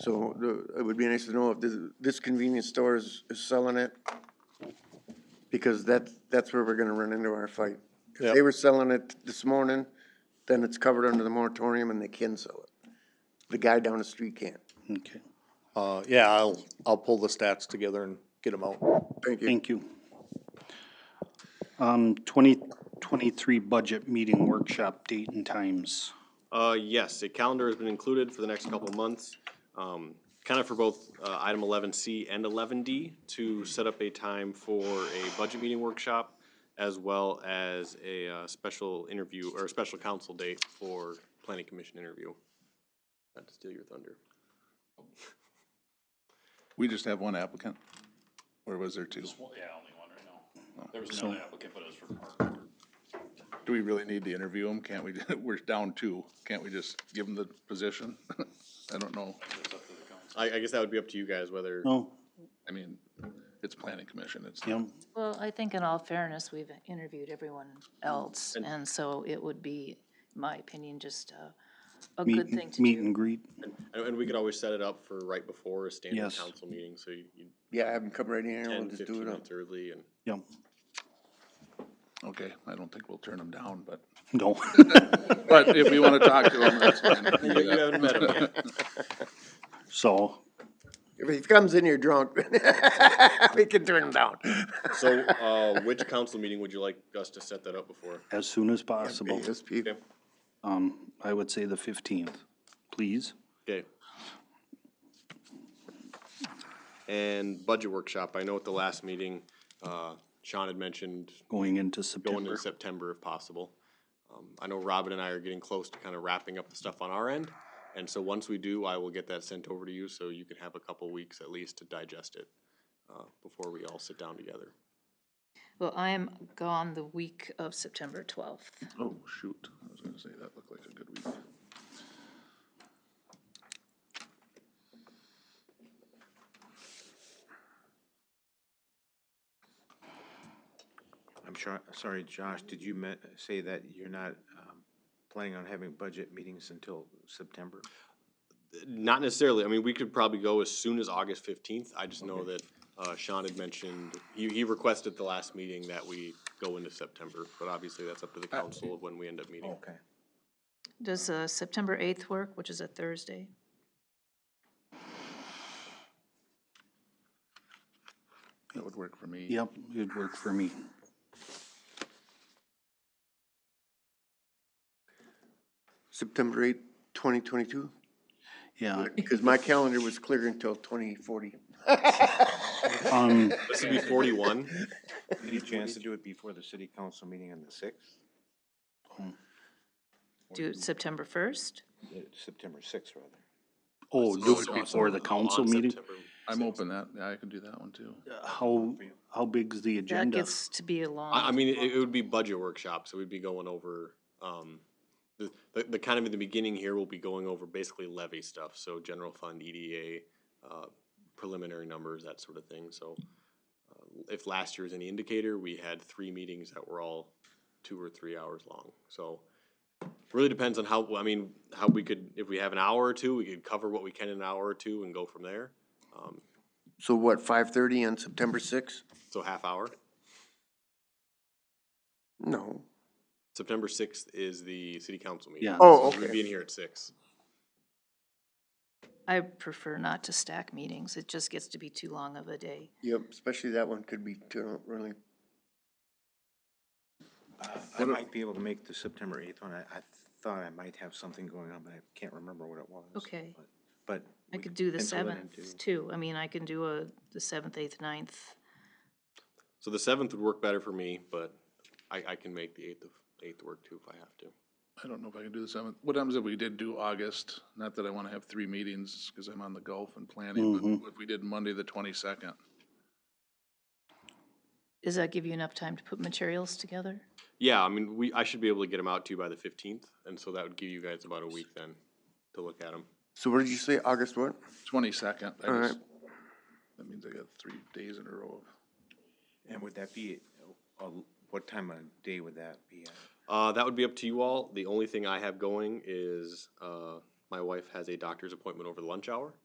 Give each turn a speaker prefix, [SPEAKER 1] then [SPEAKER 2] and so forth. [SPEAKER 1] So the, it would be nice to know if this, this convenience store is, is selling it. Because that's, that's where we're gonna run into our fight. If they
[SPEAKER 2] Yep.
[SPEAKER 1] were selling it this morning, then it's covered under the moratorium and they can sell it. The guy down the street can't.
[SPEAKER 3] Okay,
[SPEAKER 2] Uh, yeah, I'll, I'll pull the stats together and get them out.
[SPEAKER 1] Thank you.
[SPEAKER 3] thank you. Um, twenty twenty-three budget meeting workshop date and times.
[SPEAKER 4] Uh, yes, a calendar has been included for the next couple of months, um, kind of for both, uh, item eleven C and eleven D to set up a time for a budget meeting workshop as well as a, uh, special interview or a special council date for planning commission interview. Not to steal your thunder.
[SPEAKER 5] We just have one applicant? Or was there two?
[SPEAKER 6] Yeah, only one right now. There was another applicant, but it was for park.
[SPEAKER 5] Do we really need to interview him? Can't we, we're down two. Can't we just give him the position? I don't know.
[SPEAKER 4] I, I guess that would be up to you guys whether,
[SPEAKER 3] No,
[SPEAKER 5] I mean, it's planning commission. It's,
[SPEAKER 3] Oh, yeah,
[SPEAKER 7] Well, I think in all fairness, we've interviewed everyone else, and so it would be, in my opinion, just a, a
[SPEAKER 3] meet,
[SPEAKER 7] good thing to
[SPEAKER 3] meet
[SPEAKER 7] do.
[SPEAKER 3] and greet.
[SPEAKER 4] and, and we could always set it up for right before a standard
[SPEAKER 3] Yes.
[SPEAKER 4] council meeting, so you, you
[SPEAKER 1] Yeah, have them come right in here and
[SPEAKER 4] ten,
[SPEAKER 1] we'll just do
[SPEAKER 4] fifteen
[SPEAKER 1] it up.
[SPEAKER 4] minutes early and.
[SPEAKER 3] Yeah,
[SPEAKER 5] okay, I don't think we'll turn him down, but,
[SPEAKER 3] no,
[SPEAKER 5] but if we want to talk to him, that's fine. We can do
[SPEAKER 4] You
[SPEAKER 5] that.
[SPEAKER 4] haven't met him yet.
[SPEAKER 3] so,
[SPEAKER 1] If he comes in here drunk, we can turn him down.
[SPEAKER 4] So, uh, which council meeting would you like us to set that up before?
[SPEAKER 3] as soon as possible,
[SPEAKER 1] Yes, people.
[SPEAKER 3] um, I would say the fifteenth, please.
[SPEAKER 4] Okay. And budget workshop, I know at the last meeting, uh, Sean had mentioned
[SPEAKER 3] Going into
[SPEAKER 4] going in
[SPEAKER 3] September,
[SPEAKER 4] September if possible. Um, I know Robin and I are getting close to kind of wrapping up the stuff on our end, and so once we do, I will get that sent over to you, so you can have a couple weeks at least to digest it, uh, before we all sit down together.
[SPEAKER 7] Well, I am gone the week of September twelfth.
[SPEAKER 5] Oh, shoot. I was gonna say, that looked like a good week.
[SPEAKER 8] I'm sure, sorry, Josh, did you me- say that you're not um, planning on having budget meetings until September?
[SPEAKER 4] Not necessarily. I mean, we could probably go as soon as August fifteenth. I just know that uh, Sean had mentioned, he, he requested the last meeting that we go into September, but obviously that's up to the
[SPEAKER 3] Uh,
[SPEAKER 4] council of when we end up
[SPEAKER 3] oh.
[SPEAKER 4] meeting.
[SPEAKER 8] Okay.
[SPEAKER 7] Does, uh, September eighth work, which is a Thursday?
[SPEAKER 5] That would work for me.
[SPEAKER 3] yep, it'd work for me.
[SPEAKER 1] September eighth, twenty twenty-two,
[SPEAKER 3] Yeah,
[SPEAKER 1] because my calendar was clear until twenty forty.
[SPEAKER 3] um,
[SPEAKER 4] This would be forty-one.
[SPEAKER 8] Any chance to do it before the city council meeting on the sixth?
[SPEAKER 7] Do it September first?
[SPEAKER 8] Uh, September sixth, rather.
[SPEAKER 3] oh, do it before the council
[SPEAKER 4] on
[SPEAKER 3] meeting?
[SPEAKER 4] September.
[SPEAKER 5] I'm open that, yeah, I can do that one too.
[SPEAKER 3] How, how big's the
[SPEAKER 7] That
[SPEAKER 3] agenda?
[SPEAKER 7] gets to be a
[SPEAKER 4] I, I
[SPEAKER 7] long,
[SPEAKER 4] mean, it, it would be budget workshop, so we'd be going over, um, the, the, the kind of in the beginning here, we'll be going over basically levy stuff, so general fund, EDA, uh, preliminary numbers, that sort of thing, so. uh, If last year's any indicator, we had three meetings that were all two or three hours long, so. Really depends on how, I mean, how we could, if we have an hour or two, we could cover what we can in an hour or two and go from there, um,
[SPEAKER 1] So what, five thirty on September sixth?
[SPEAKER 4] so half hour.
[SPEAKER 1] No.
[SPEAKER 4] September sixth is the city council meeting.
[SPEAKER 3] Yeah,
[SPEAKER 1] Oh,
[SPEAKER 4] We'd be
[SPEAKER 1] okay.
[SPEAKER 4] in here at six.
[SPEAKER 7] I prefer not to stack meetings, it just gets to be too long of a day.
[SPEAKER 1] Yep, especially that one could be too, really.
[SPEAKER 8] I might be able to make the September eighth one. I, I thought I might have something going on, but I can't remember what it was.
[SPEAKER 7] Okay.
[SPEAKER 8] but- But.
[SPEAKER 7] I
[SPEAKER 8] we
[SPEAKER 7] could do the
[SPEAKER 8] pencil it in
[SPEAKER 7] seventh
[SPEAKER 8] to-
[SPEAKER 7] too, I mean, I can do a, the seventh, eighth, ninth,
[SPEAKER 4] So the seventh would work better for me, but I, I can make the eighth of, eighth work too if I have to.
[SPEAKER 5] I don't know if I can do the seventh. What happens if we did do August? Not that I want to have three meetings because I'm on the Gulf and planning,
[SPEAKER 1] Mm-hmm.
[SPEAKER 5] but if we did Monday, the twenty-second,
[SPEAKER 7] does that give you enough time to put materials together?
[SPEAKER 4] Yeah, I mean, we, I should be able to get them out to you by the fifteenth, and so that would give you guys about a week then to look at them.
[SPEAKER 1] So what did you say, August what?
[SPEAKER 5] twenty-second, I
[SPEAKER 1] All right.
[SPEAKER 5] just, that means I got three days in a row of.
[SPEAKER 8] And would that be, uh, what time of day would that be? at?
[SPEAKER 4] Uh, that would be up to you all. The only thing I have going is, uh, my wife has a doctor's appointment over the lunch hour,